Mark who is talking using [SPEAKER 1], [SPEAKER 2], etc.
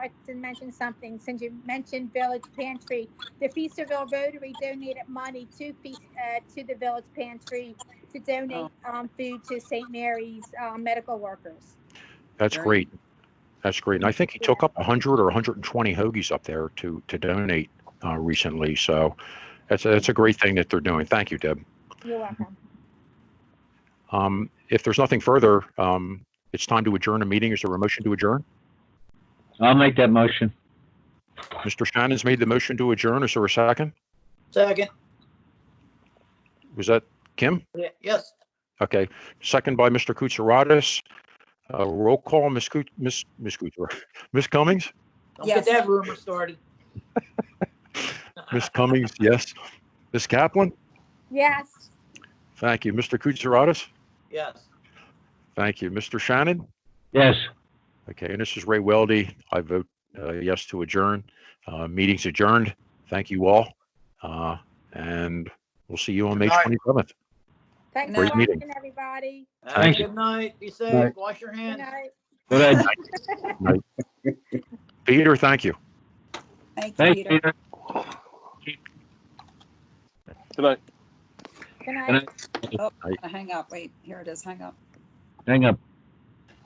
[SPEAKER 1] to mention something, since you mentioned Village Pantry. The Feasterville Rotary donated money to, Feas- uh, to the Village Pantry to donate, um, food to St. Mary's, uh, medical workers.
[SPEAKER 2] That's
[SPEAKER 3] Right.
[SPEAKER 2] great. That's great. And I think he took
[SPEAKER 1] Yeah.
[SPEAKER 2] up 100 or 120 hoagies up there to to donate uh, recently. So that's that's a great thing that they're doing. Thank you, Deb.
[SPEAKER 1] You're welcome.
[SPEAKER 2] Um, if there's nothing further, um, it's time to adjourn a meeting. Is there a motion to adjourn?
[SPEAKER 4] I'll make that motion.
[SPEAKER 2] Mr. Shannon's made the motion to adjourn. Is there a second?
[SPEAKER 3] Second,
[SPEAKER 2] Was that Kim?
[SPEAKER 3] Ye- yes,
[SPEAKER 2] Okay. Second by Mr. Kutsaratus. Uh, roll call, Ms. Kut- Ms. Ms. Kutsar- Ms. Cummings?
[SPEAKER 3] don't get
[SPEAKER 1] Yes.
[SPEAKER 3] that rumor started.
[SPEAKER 2] Ms. Cummings, yes. Ms. Kaplan?
[SPEAKER 1] Yes,
[SPEAKER 2] Thank you. Mr. Kutsaratus?
[SPEAKER 3] Yes,
[SPEAKER 2] Thank you. Mr. Shannon?
[SPEAKER 4] Yes,
[SPEAKER 2] Okay, and this is Ray Weldy. I vote uh, yes to adjourn. Uh, Meeting's adjourned. Thank you all. Uh, And we'll see you on May
[SPEAKER 3] Good night.
[SPEAKER 2] 27th.
[SPEAKER 1] thanks for
[SPEAKER 3] Great
[SPEAKER 2] meeting.
[SPEAKER 1] watching, everybody.
[SPEAKER 3] Have a
[SPEAKER 4] Thank you.
[SPEAKER 3] good night, be safe,
[SPEAKER 4] Night.
[SPEAKER 3] wash your
[SPEAKER 1] Good
[SPEAKER 3] hands.
[SPEAKER 1] night.
[SPEAKER 4] go ahead.
[SPEAKER 2] Peter, thank you.
[SPEAKER 5] Thank you,
[SPEAKER 4] Thank you.
[SPEAKER 5] Peter.
[SPEAKER 4] Peter.
[SPEAKER 1] Good night.
[SPEAKER 4] night.
[SPEAKER 5] Oh, I hang up. Wait, here it is. Hang up.
[SPEAKER 4] Hang up.